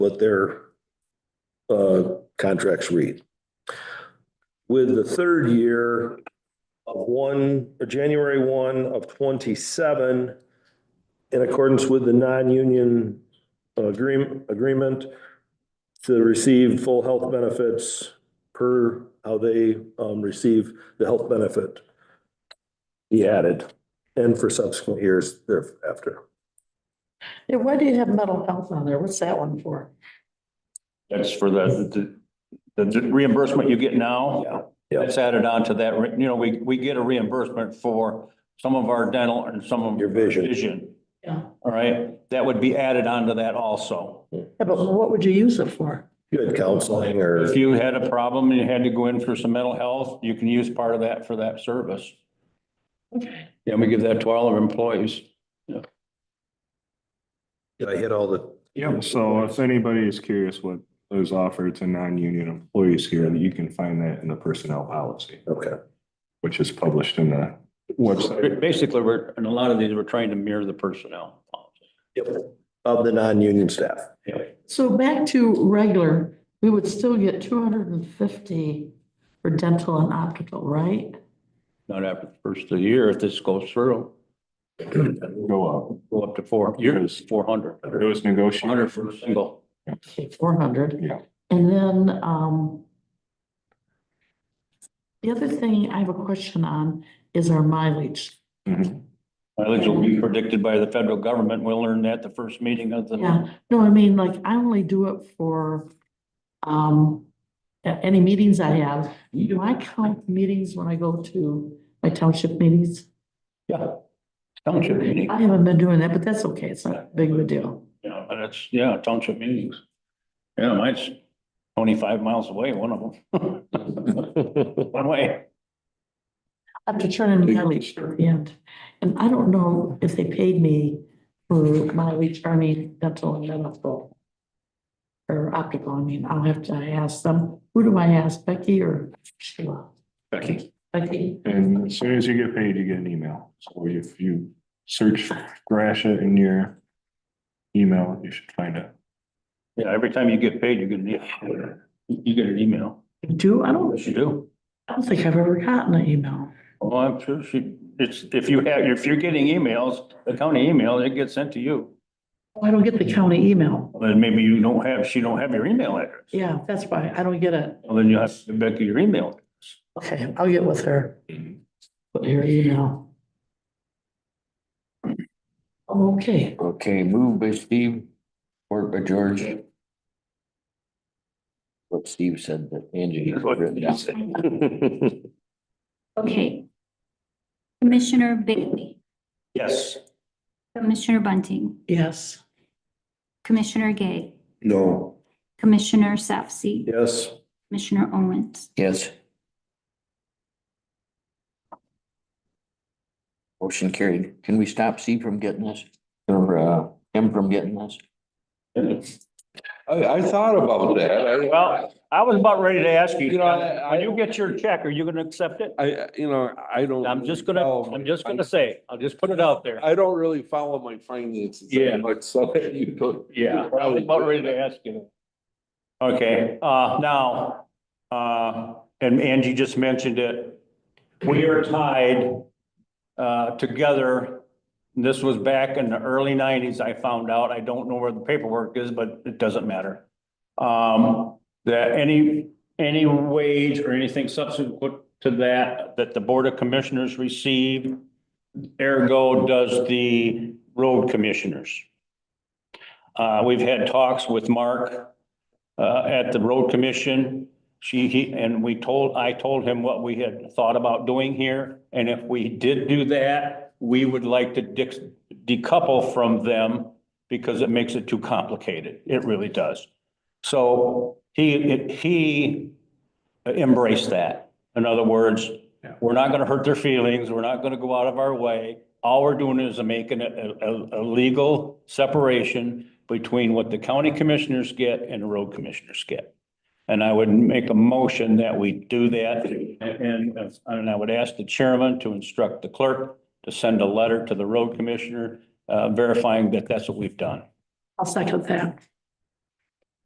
what their uh, contracts read. With the third year of one, uh, January one of twenty-seven, in accordance with the non-union agreement, agreement to receive full health benefits per how they um, receive the health benefit. He added, and for subsequent years thereafter. Yeah, why do you have mental health on there? What's that one for? That's for the, the the reimbursement you get now. Yeah. That's added on to that, re- you know, we, we get a reimbursement for some of our dental and some of. Your vision. Vision, Yeah. all right? That would be added on to that also. Yeah, but what would you use it for? You had counseling or. If you had a problem and you had to go in for some mental health, you can use part of that for that service. Okay. Yeah, we give that to all our employees. Did I hit all the? Yeah, so if anybody is curious what is offered to non-union employees here, you can find that in the personnel policy, Okay. which is published in the website. Basically, we're, and a lot of these, we're trying to mirror the personnel. Yep. Of the non-union staff. So back to regular, we would still get two hundred and fifty for dental and optical, right? Not after the first of the year, if this goes through, Go go up to four, years, four hundred. up. It was negotiated. Hundred for a single. Okay, four hundred. Yeah. And then, um, the other thing I have a question on is our mileage. Mhm. Mileage will be predicted by the federal government. We'll learn that the first meeting of the. Yeah, no, I mean, like, I only do it for, um, a- any meetings I have. Do I count meetings when I go to my township meetings? Yeah. Township meeting. I haven't been doing that, but that's okay. It's not big of a deal. Yeah, but that's, yeah, township meetings. Yeah, mine's twenty-five miles away, one of them. One way. I have to turn in mileage at the end. And I don't know if they paid me for mileage, I mean, dental and medical. Or optical, I mean, I'll have to ask them. Who do I ask, Becky or Sheila? Becky. Becky? Mm-hmm. And as soon as you get paid, you get an email. So if you search Grasha in your email, you should find it. Yeah, every time you get paid, you get an, e- you get an email. Do, I don't, Yes, you do. I don't think I've ever gotten an email. Well, I'm sure she, it's, if you have, if you're getting emails, the county email, it gets sent to you. Oh, I don't get the county email. Then maybe you don't have, she don't have your email address. Yeah, that's why I don't get it. Well, then you have to give Becky your email. Okay, I'll get with her. Put your email. Okay, Okay, move by Steve, work by George. What Steve said that Angie. That's what written he down. Okay. Commissioner Bailey, Yes. Commissioner Bunting, yes. Commissioner Gay, No. Commissioner Safsi, Yes. Commissioner Owens. Yes. Motion carried. Can we stop C from getting this or uh M from getting this? I, I thought about that. I- Well- I was about ready to ask you, You know, I- when you get your check, are you gonna accept it? I, you know, I don't. I'm just gonna, follow I'm my just gonna fin- say, I'll just put it out there. I don't really follow my finances. that Yeah. Much, so you could. Yeah, I was about ready to ask you. that. Okay, uh, now, uh, and Angie just mentioned it. We are tied, uh, together. This was back in the early nineties, I found out. I don't know where the paperwork is, but it doesn't matter. Um, that any, any wage or anything subsequent to that, that the Board of Commissioners receive, ergo does the road commissioners. Uh, we've had talks with Mark, uh, at the road commission. She, he, and we told, I told him what we had thought about doing here. And if we did do that, we would like to dix- decouple from them because it makes it too complicated. It really does. So he, it- he embraced that. In other words, we're not gonna hurt their feelings. We're not gonna go out of our way. All we're doing is making a, a, a legal separation between what the county commissioners get and the road commissioners get. And I would make a motion that we do that. And, and I would ask the chairman to instruct the clerk to send a letter to the road commissioner, uh, verifying that that's what we've done. I'll second that.